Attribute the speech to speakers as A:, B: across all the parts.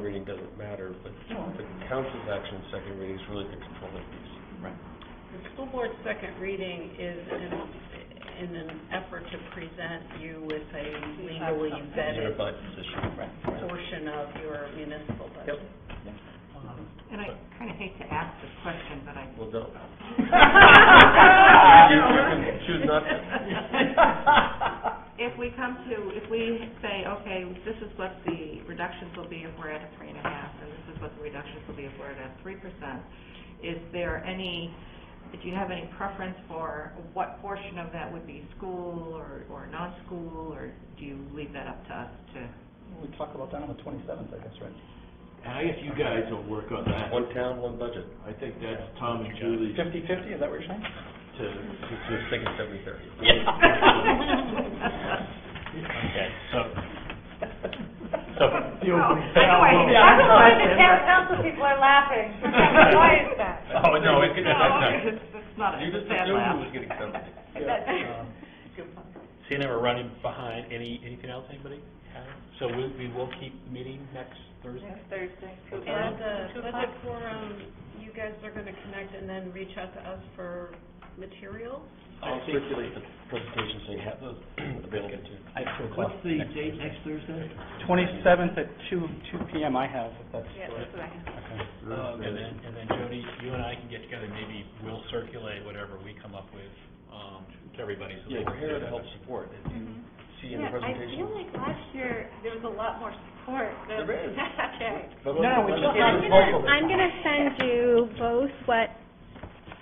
A: reading doesn't matter, but the council's action in second reading is really the controlling piece.
B: Right.
C: The school board's second reading is in, in an effort to present you with a legally vetted
A: Unified position.
B: Right.
C: portion of your municipal budget.
D: Um, And I kind of hate to ask this question, but I.
A: Well, don't.
D: Choose-
A: choose not to.
D: If we come to, if we say, okay, this is what the reductions will be if we're at a three and a half, and this is what the reductions will be if we're at a three percent, is there any, do you have any preference for what portion of that would be school or, or non-school, or do you leave that up to us to?
B: We talk about that on the twenty-seventh, I guess, right?
E: And I guess you guys will work on that.
A: One town, one budget.
E: I think that's Tom and Julie's to,
B: Fifty-fifty, is that what you're saying?
A: It's just
E: to,
A: thinking seventy thirty.
E: okay, so. So, the opening.
D: Anyway,
F: I'm
D: that's a question,
F: surprised the town council people are laughing. Why is that?
E: Oh, no, it could, that's
D: No,
E: not.
A: You
D: it's, it's not a
A: just
D: sad
A: assumed
D: laugh.
A: it was getting something.
B: Yeah.
G: See, now we're running behind. Any, anything else, anybody? have? So we, we will keep meeting next Thursday?
F: Next Thursday.
B: uh,
C: And the budget forum, you guys are gonna connect and then reach out to us for materials?
A: I'll circulate the presentation so you have those available to you.
E: What's the date next Thursday?
B: Twenty-seventh at two, two PM I have, if that's.
F: Yeah, that's what I have.
B: Okay.
E: Uh,
G: Um, And then, and then Jody, you and I can get together, maybe we'll circulate whatever we come up with, um, to everybody. so they
A: Yeah,
G: can
A: we're here to
G: see
A: help
G: it.
A: support. If you see in the
F: Yeah, I feel
A: presentation.
F: like last year, there was a lot more support than.
A: There is.
F: Okay.
A: But
B: No,
A: let's- let's
B: it's not-
A: get
H: I'm
A: this
H: gonna,
A: vocal.
H: I'm gonna send you both what,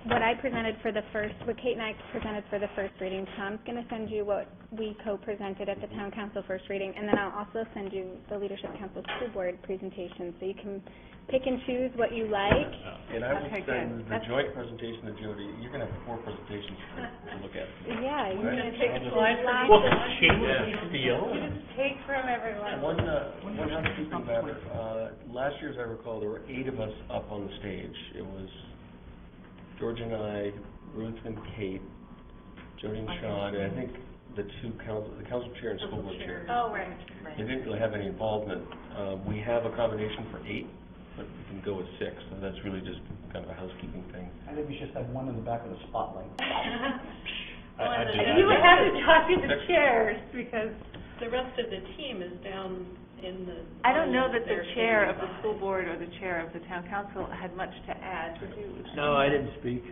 H: what I presented for the first, what Kate and I presented for the first reading. Tom's gonna send you what we co-presented at the town council first reading, and then I'll also send you the leadership council school board presentation, so you can pick and choose what you like.
A: And I
H: Okay,
A: would
H: good.
A: send the
H: That's-
A: joint presentation to Jody. You're gonna have four presentations to to look at.
H: Yeah, you
A: Right.
H: can
F: Take a slide from each
G: Well,
F: one.
G: shamelessly steal.
F: You just take from everyone.
A: One, uh, one housekeeping matter, uh, last year, as I recall, there were eight of us up on the stage. It was George and I, Ruth and Kate, Jody and Sean, and I think the two council, the council chair and school board chair.
F: Oh, right.
A: They didn't really have any involvement. Uh, we have accommodation for eight, but we can go with six, so that's really just kind of a housekeeping thing.
B: I think we should have one in the back of the spotlight.
G: I- I do
F: And you would have to talk to the chairs because
C: The rest of the team is down in the.
F: I don't know that
C: They're
F: the chair of the
C: sitting
F: school
C: by.
F: board or the chair of the town council had much to add to.
E: No, I didn't speak.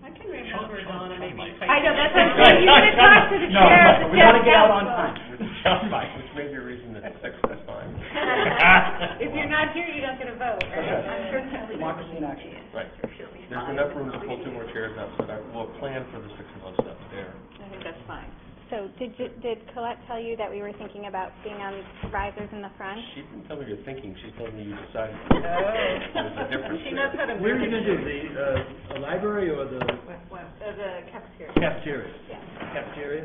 C: I can remember Donna maybe.
F: I know, that's what I'm saying, you gotta talk to the
B: No,
F: chair of the
B: we gotta
F: town
B: get out on
F: council.
B: time.
A: Which may be a reason that six is fine.
F: If you're not here, you don't get a vote, right? I'm sure that's-
B: Democracy in action.
A: Right. There's enough room to pull two more chairs out, so that we'll plan for the six of us up there.
F: I think that's fine.
H: So, did you, did Colette tell you that we were thinking about being on risers in the front?
A: She didn't tell me you're thinking, she told me you decided. There's a
C: Oh.
A: difference
C: She knows how to.
E: Where are you
C: manage
E: gonna do, the, uh, library or the
F: So uh, the cafeteria.
E: cafeteria?
F: Yeah.
E: Cafeteria?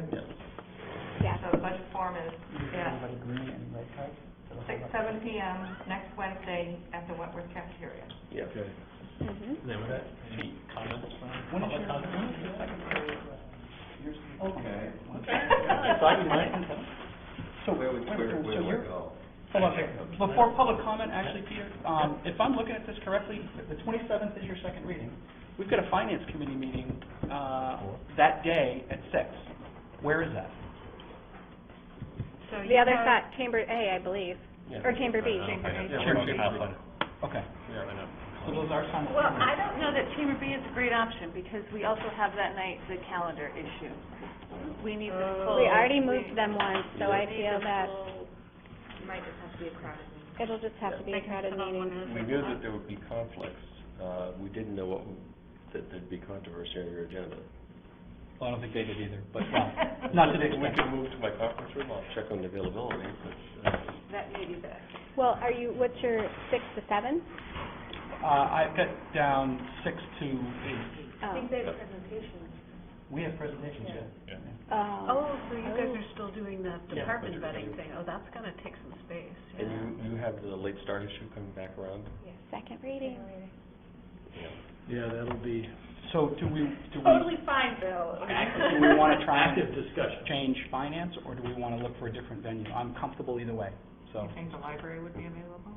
H: Yeah.
D: So the budget forum is at
B: Everybody green and red cards?
D: six, seven PM next Wednesday at the Wentworth cafeteria.
A: Yeah.
E: Okay.
H: Mm-hmm.
G: Then we any comments from
B: When is your,
G: public comment?
B: when is your secretary, uh, yours?
E: Okay.
B: Yeah, so I can mind. So,
A: Where would,
B: wait,
A: where,
B: so
A: where would I
B: you're-
A: go?
B: Hold on a second. Before public comment, actually, Peter, um, if I'm looking at this correctly, the twenty-seventh is your second reading. We've got a finance committee meeting, uh, that day at six. Where is that?
C: So
H: The
C: you
H: other
C: have-
H: side, chamber A, I believe,
A: Yeah.
H: or chamber B.
G: I don't know.
A: Yeah,
G: Chamber
A: chamber
G: of
A: B.
G: Commerce.
B: Okay,
A: Yeah, I know.
B: so those are simultaneous.
F: Well, I don't know that Chamber B is a great option, because we also have that night the calendar issue. We need the full.
H: We already moved them once, so I
F: we need
H: feel
F: the
H: that
F: full- Might just have to be a crowded meeting.
H: it'll just have to be a crowded meeting.
A: We knew that there would be conflicts, uh, we didn't know what, that there'd be controversy on your agenda.
G: Well, I don't think they did either, but,
B: Well, Not to the
A: We
B: extent.
A: can move to my conference room, I'll check on the availability, but, uh,
F: That may be the.
H: Well, are you, what's your, six to seven?
B: Uh, I've got down six to eight.
H: Oh.
F: they have presentations.
B: We have presentations, yeah.
G: Yeah.
H: Oh,
C: Oh, so you guys are still doing that
B: Yeah.
C: department
A: Budget
C: vetting
A: review.
C: thing? Oh, that's gonna take some space, yeah.
A: and you, you have the late start issue coming back around?
H: second reading.
E: Yeah, that'll be
B: So do we, do we,
F: Totally fine, Bill.
B: do we want to try
E: active
B: and
E: discussion.
B: change finance, or do we want to look for a different venue? I'm comfortable either way, so.
D: You think the library would be available?